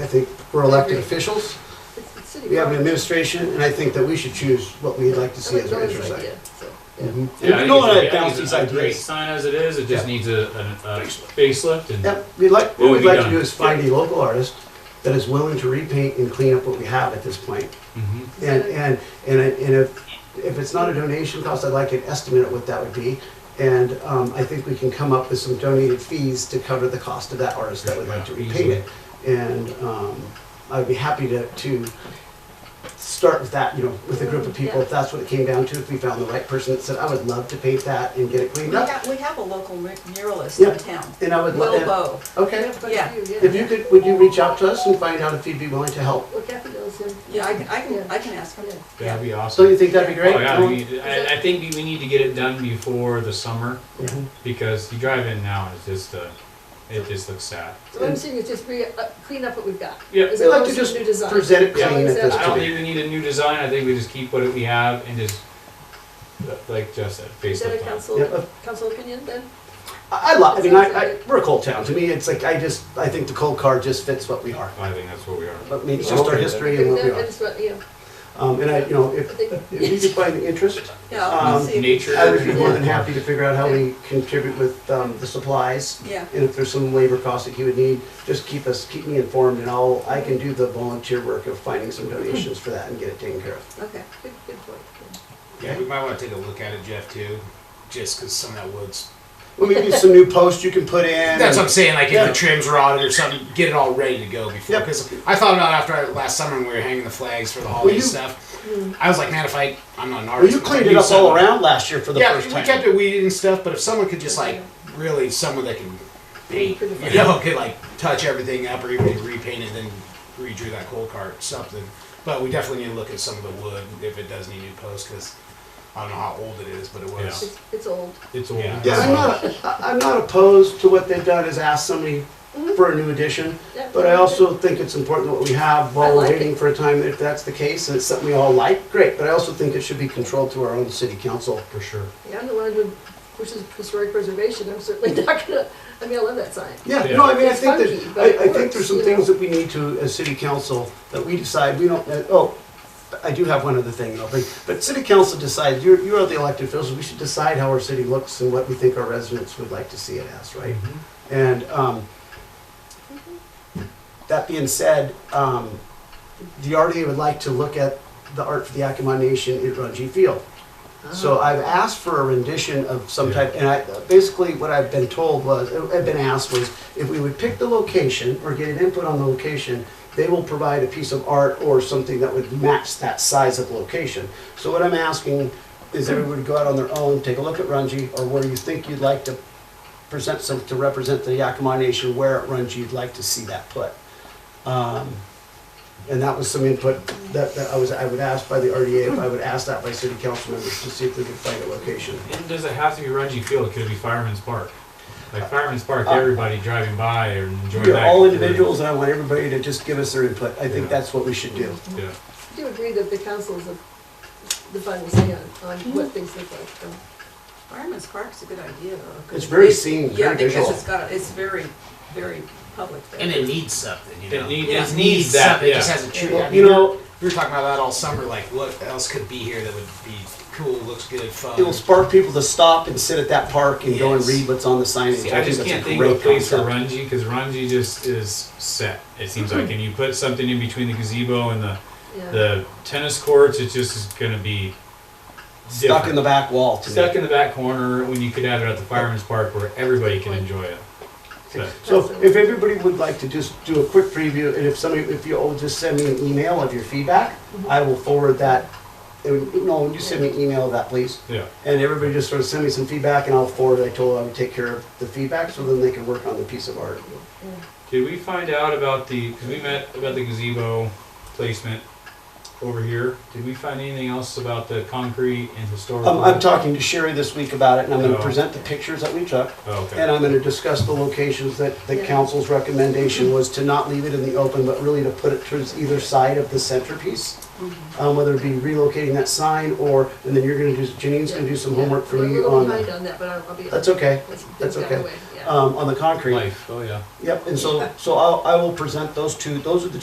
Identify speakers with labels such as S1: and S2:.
S1: I think we're elected officials,
S2: It's- it's city
S1: we have an
S2: government.
S1: administration, and I think that we should choose what we'd like to see
S2: Like
S1: as our
S2: Joey's
S1: interest
S2: idea,
S1: site.
S2: so, yeah.
S1: Mhm.
S3: Yeah, I
S1: We
S3: think
S1: don't
S3: it's a- I
S1: want to
S3: think
S1: bounce
S3: it's
S1: these
S3: a Great
S1: ideas.
S3: sign as it is, it just
S1: Yeah.
S3: needs a, an- a facelift and,
S1: Yep, we'd like,
S3: What
S1: what
S3: would
S1: we'd
S3: be
S1: like to
S3: done?
S1: do is find a local artist that is willing to repaint and clean up what we have at this point.
S3: Mhm.
S1: And, and, and I- and if, if it's not a donation cost, I'd like an estimate of what that would be. And um, I think we can come up with some donated fees to cover the cost of that artist that would like to repaint it. And um, I'd be happy to, to start with that, you know, with a group of people, if that's what it came down to, if we found the right person that said, I would love to paint that and get it
S4: We
S1: cleaned up.
S4: have, we have a local mur- muralist
S1: Yeah.
S4: in town,
S1: And I would
S4: Will
S1: love,
S4: Bow.
S1: okay.
S2: Yeah, quite a
S4: Yeah.
S2: few,
S1: If you could, would you reach out to us and find out if you'd be willing to help?
S2: Well, Kathy knows him.
S4: Yeah, I can, I
S2: Yeah.
S4: can, I can ask him.
S2: Yeah.
S3: that'd be
S1: So you
S3: awesome.
S1: think that'd be
S3: Oh,
S1: great?
S3: yeah, we, I, I think we- we need to get it done before the summer,
S1: Mhm.
S3: because you drive in now, and it's just, uh, it just looks sad.
S2: So what I'm seeing is just re, uh, clean up what we've got.
S3: Yeah.
S2: As
S1: We'd like to
S2: opposed
S1: just
S2: new design.
S1: present it
S2: Yeah,
S1: clean at this
S3: I don't
S1: point.
S3: think we need a new design, I think we just keep what we have and just, like Jeff said,
S2: Is that a
S3: facelift on it.
S1: Yep.
S2: council, council opinion then?
S1: I, I love. I mean, I, I, we're a cold town. To me, it's like I just I think the cold card just fits what we are.
S3: I think that's what we are.
S1: But I mean, it's just our history and what we
S2: That-
S1: are.
S2: that's what, yeah.
S1: Um, and I, you know, if, if you could find the interest,
S4: Yeah, I'll
S1: Um,
S4: see. if-
S3: Nature.
S1: I would be more than happy to figure out how we contribute with um, the supplies.
S4: Yeah,
S1: And if there's some labor costs that you would need, just keep us keep me informed, and I'll I can do the volunteer work of finding some donations for that and get it taken care of.
S4: okay.
S2: Good, good point. good.
S5: Yeah, we might want to take a look at it, Jeff, too, just because some of that wood's.
S1: Well, maybe some new posts you can put in.
S5: That's what I'm saying. Like,
S1: Yeah.
S5: if the trim's rotted or something, get it all ready to go before.
S1: Yep.
S5: Because I thought about it after I, last summer when we were hanging the flags for the holiday
S1: you-
S5: stuff. I was like, man, if I, I'm not an
S1: Well,
S5: artist.
S1: you
S5: but if I
S1: cleaned it
S5: do
S1: up all
S5: something-
S1: around last year for the
S5: yeah,
S1: first
S5: we
S1: time.
S5: kept it weeded and stuff. But if someone could just like really, someone that can paint, you know, could like touch everything up or even repaint it, then redrew that coal cart something. But we definitely need to look at some of the wood if it does need new posts because I don't know how old it is, but it was.
S3: Yeah.
S2: It's, it's old.
S3: It's old.
S5: Yeah.
S1: Yeah, I'm not, I- I'm not opposed to what they've done is ask somebody
S2: Mm-hmm.
S1: for a new addition,
S2: Yeah.
S1: but I also think it's important what we have
S2: I
S1: while we're
S2: like
S1: waiting
S2: it.
S1: for a time, if that's the case, and it's something we all like, great, but I also think it should be controlled through our own city council.
S3: For sure.
S2: Yeah, I'm the one who pushes historic preservation, I'm certainly not gonna, I mean, I love that sign.
S1: Yeah,
S3: Yeah.
S1: no, I mean, I
S2: It's
S1: think
S2: funky,
S1: that,
S2: but it
S1: I, I think
S2: works,
S1: there's some
S2: you
S1: things
S2: know?
S1: that we need to, as city council, that we decide, we don't, uh, oh, I do have one other thing, I'll bring, but city council decides, you're, you're the elected officials, we should decide how our city looks and what we think our residents would like to see it as, right? And, um, that being said, um, the RDA would like to look at the art for the Yakima Nation at Runji Field. So I've asked for a rendition of some type, and I, basically what I've been told was, I've been asked was, if we would pick the location or get an input on the location, they will provide a piece of art or something that would match that size of location. So what I'm asking is everyone to go out on their own, take a look at Runji, or where you think you'd like to present some, to represent the Yakima Nation, where at Runji you'd like to see that put. Um, and that was some input that, that I was, I would ask by the RDA, if I would ask that by city council members to see if they could find a location.
S3: And does it have to be Rungy Field? Could it be Fireman's Park? Like Fireman's Park, everybody driving by and enjoying
S1: We
S3: that.
S1: are Uh, all individuals and I want everybody to just give us their input. I think
S3: Yeah.
S1: that's what we should do.
S3: Yeah.
S2: I do agree that the council is the the final say on, on what things look like, so.
S4: Fireman's Park's a good idea. though, 'cause
S1: It's very
S4: it-
S1: seen, very
S4: Yeah, because
S1: visual.
S4: it's got, it's very, very public there.
S5: And it needs something, you
S3: It
S5: know.
S3: need-
S4: it
S5: needs,
S3: needs that,
S5: something. It just
S3: yeah.
S5: hasn't true.
S1: Well,
S5: I mean,
S1: you know,
S5: we were talking about that all summer. Like, what else could be here that would be cool, looks good, fun?
S1: it will spark people to stop and sit at that park and go and
S5: Yes.
S1: read what's on the signage.
S3: I
S1: think
S3: just
S1: that's
S3: can't
S1: a
S3: think of a
S1: great
S3: place for
S1: concept. Hmm.
S3: Runji because Runji just is set. It seems like, and you put something in between the gazebo and the,
S2: Yeah,
S3: the tennis courts, it's just going to be
S1: Stuck in the back wall to me.
S3: stuck in the back corner. When you could have it at the Fireman's Park where everybody can enjoy it. So,
S1: So if everybody would like to just do a quick preview, and if somebody, if you all just send me an email of your feedback, I will forward that. And, No, you send me an email of that, please.
S3: yeah.
S1: And everybody just sort of send me some feedback and I'll forward, it. I told them I would take care of the feedback so then they can work on the piece of art.
S3: Did we find out about the? Because we met about the gazebo placement over here, did we find anything else about the concrete and historical?
S1: Um, I'm talking to Sherry this week about it, and I'm gonna
S3: Oh.
S1: present the pictures that we took,
S3: Oh, okay.
S1: and I'm gonna discuss the locations that, the
S2: Yeah.
S1: council's recommendation was to not leave it in the open, but really to put it towards either side of the centerpiece.
S2: Mm-hmm.
S1: Um, whether it be relocating that sign, or, and then you're gonna do, Janine's gonna do some
S2: Yeah,
S1: homework for
S2: we're a
S1: me
S2: little
S1: on,
S2: behind on that, but I'll I'll be.
S1: that's okay,
S2: That's-
S1: that's
S2: that
S1: okay.
S2: way, yeah.
S1: um, on the concrete.
S3: Life, oh yeah.
S1: Yep, and so, so I'll, I will present those two, those are the two